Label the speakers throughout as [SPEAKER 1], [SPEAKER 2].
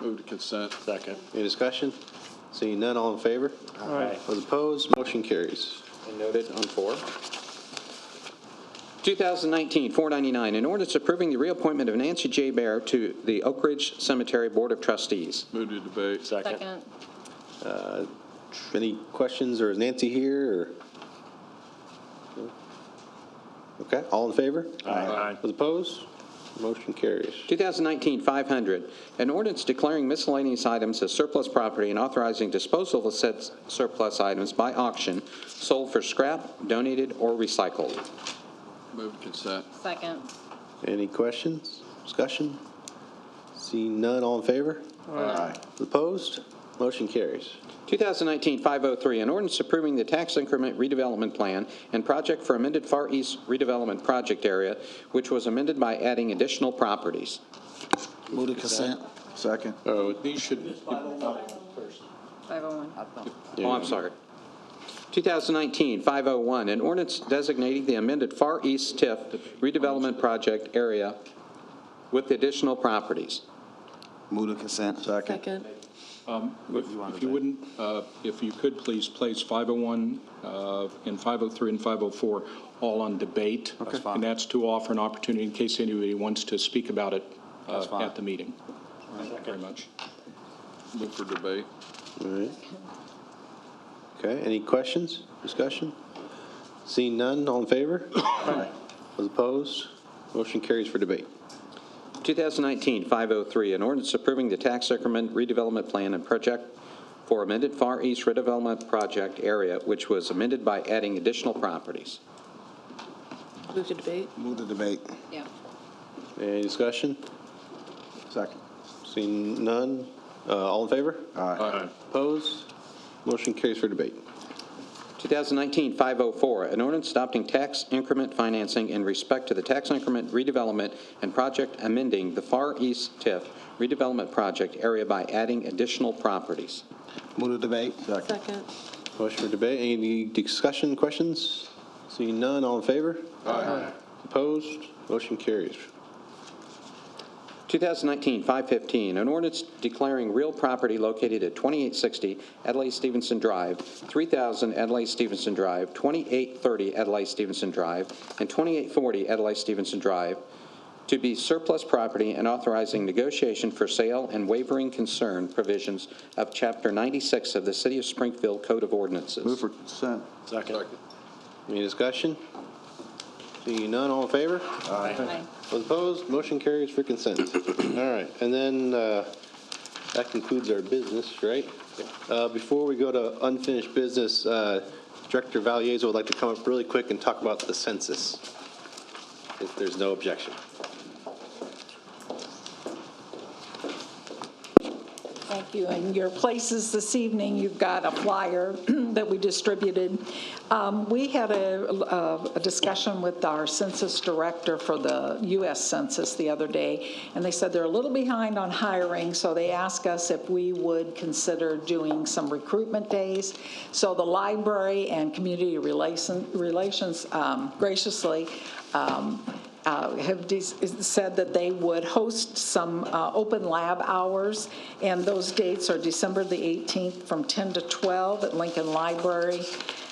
[SPEAKER 1] Move to consent.
[SPEAKER 2] Second.
[SPEAKER 3] Any discussion? Seeing none, all in favor?
[SPEAKER 2] Aye.
[SPEAKER 3] Those opposed, motion carries. And noted on four.
[SPEAKER 4] 2019-499, an ordinance approving the reappointment of Nancy J. Bear to the Oak Ridge Cemetery Board of Trustees.
[SPEAKER 1] Move to debate.
[SPEAKER 2] Second.
[SPEAKER 5] Second.
[SPEAKER 3] Any questions, or is Nancy here, or? Okay, all in favor?
[SPEAKER 2] Aye.
[SPEAKER 3] Those opposed, motion carries.
[SPEAKER 4] 2019-500, an ordinance declaring miscellaneous items as surplus property and authorizing disposal of said surplus items by auction, sold for scrap, donated, or recycled.
[SPEAKER 1] Move to consent.
[SPEAKER 5] Second.
[SPEAKER 3] Any questions, discussion? Seeing none, all in favor?
[SPEAKER 1] Aye.
[SPEAKER 3] Opposed, motion carries.
[SPEAKER 4] 2019-503, an ordinance approving the tax increment redevelopment plan and project for amended Far East redevelopment project area, which was amended by adding additional properties.
[SPEAKER 6] Move to consent.
[SPEAKER 1] Second. Oh, these should,
[SPEAKER 5] 501.
[SPEAKER 4] Oh, I'm sorry. 2019-501, an ordinance designating the amended Far East TIF redevelopment project area with additional properties.
[SPEAKER 6] Move to consent.
[SPEAKER 5] Second.
[SPEAKER 6] wanna
[SPEAKER 7] If you
[SPEAKER 6] do it.
[SPEAKER 7] wouldn't, uh, if you could, please place 501 uh, and 503 and 504 all on debate.
[SPEAKER 6] That's fine.
[SPEAKER 7] And that's to offer an opportunity in case anybody wants to speak about it uh,
[SPEAKER 6] That's fine.
[SPEAKER 7] at the meeting. Thank you very much.
[SPEAKER 1] move for debate.
[SPEAKER 3] All right. Okay, any questions, discussion? Seeing none, all in favor? Aye. Those opposed, motion carries for debate.
[SPEAKER 4] 2019-503, an ordinance approving the tax increment redevelopment plan and project for amended Far East redevelopment project area, which was amended by adding additional properties.
[SPEAKER 8] Move to debate?
[SPEAKER 6] Move to debate.
[SPEAKER 5] Yeah.
[SPEAKER 3] Any discussion? Second. Seeing none, uh, all in favor?
[SPEAKER 1] Aye.
[SPEAKER 3] Opposed, motion carries for debate.
[SPEAKER 4] 2019-504, an ordinance adopting tax increment financing in respect to the tax increment redevelopment and project amending the Far East TIF redevelopment project area by adding additional properties.
[SPEAKER 6] Move to debate.
[SPEAKER 8] Second.
[SPEAKER 3] Motion for debate, any discussion, questions? Seeing none, all in favor?
[SPEAKER 1] Aye.
[SPEAKER 3] Opposed, motion carries.
[SPEAKER 4] 2019-515, an ordinance declaring real property located at 2860 Adlai Stevenson Drive, 3000 Adlai Stevenson Drive, 2830 Adlai Stevenson Drive, and 2840 Adlai Stevenson Drive to be surplus property and authorizing negotiation for sale and wavering concern provisions of Chapter 96 of the City of Springfield Code of Ordinances.
[SPEAKER 6] for consent.
[SPEAKER 2] Second.
[SPEAKER 3] Any discussion? Seeing none, all in favor?
[SPEAKER 5] Aye.
[SPEAKER 3] Those opposed, motion carries for consent. All right, and then uh, that concludes our business, right? Uh, Before we go to unfinished business, uh, Director Valiazo would like to come up really quick and talk about the census, if there's no objection.
[SPEAKER 9] Thank you. In your places this evening, you've got a flyer that we distributed. Um, We had a a- a discussion with our census director for the U.S. Census the other day, and they said they're a little behind on hiring, so they asked us if we would consider doing some recruitment days. So the library and community relation- relations um, graciously um, uh, have de- said that they would host some uh, open lab hours, and those dates are December the 18th from 10 to 12 at Lincoln Library,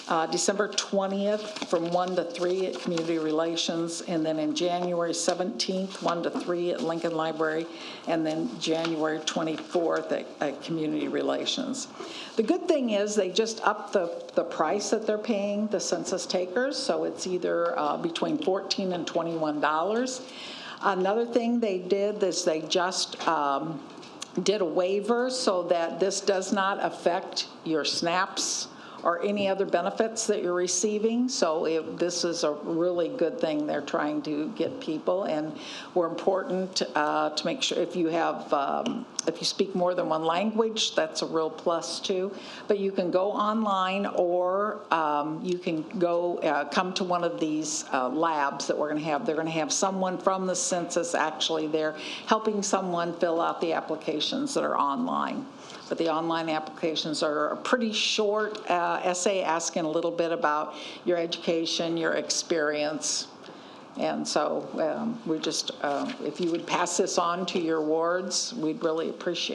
[SPEAKER 9] uh, December 20th from 1 to 3 at Community Relations, and then in January 17th, 1 to 3 at Lincoln Library, and then January 24th at- at Community Relations. The good thing is, they just upped the the price that they're paying the census takers, so it's either uh, between 14 and 21 dollars. Another thing they did is they just um, did a waiver so that this does not affect your SNAPs or any other benefits that you're receiving. So it- this is a really good thing they're trying to get people, and we're important uh, to make sure, if you have, um, if you speak more than one language, that's a real plus too. But you can go online, or um, you can go, uh, come to one of these uh, labs that we're going to have. They're going to have someone from the census actually there, helping someone fill out the applications that are online but the online applications are a pretty short uh, essay asking a little bit about your education, your experience. And so um, we just, uh, if you would pass this on to your wards, we'd really appreciate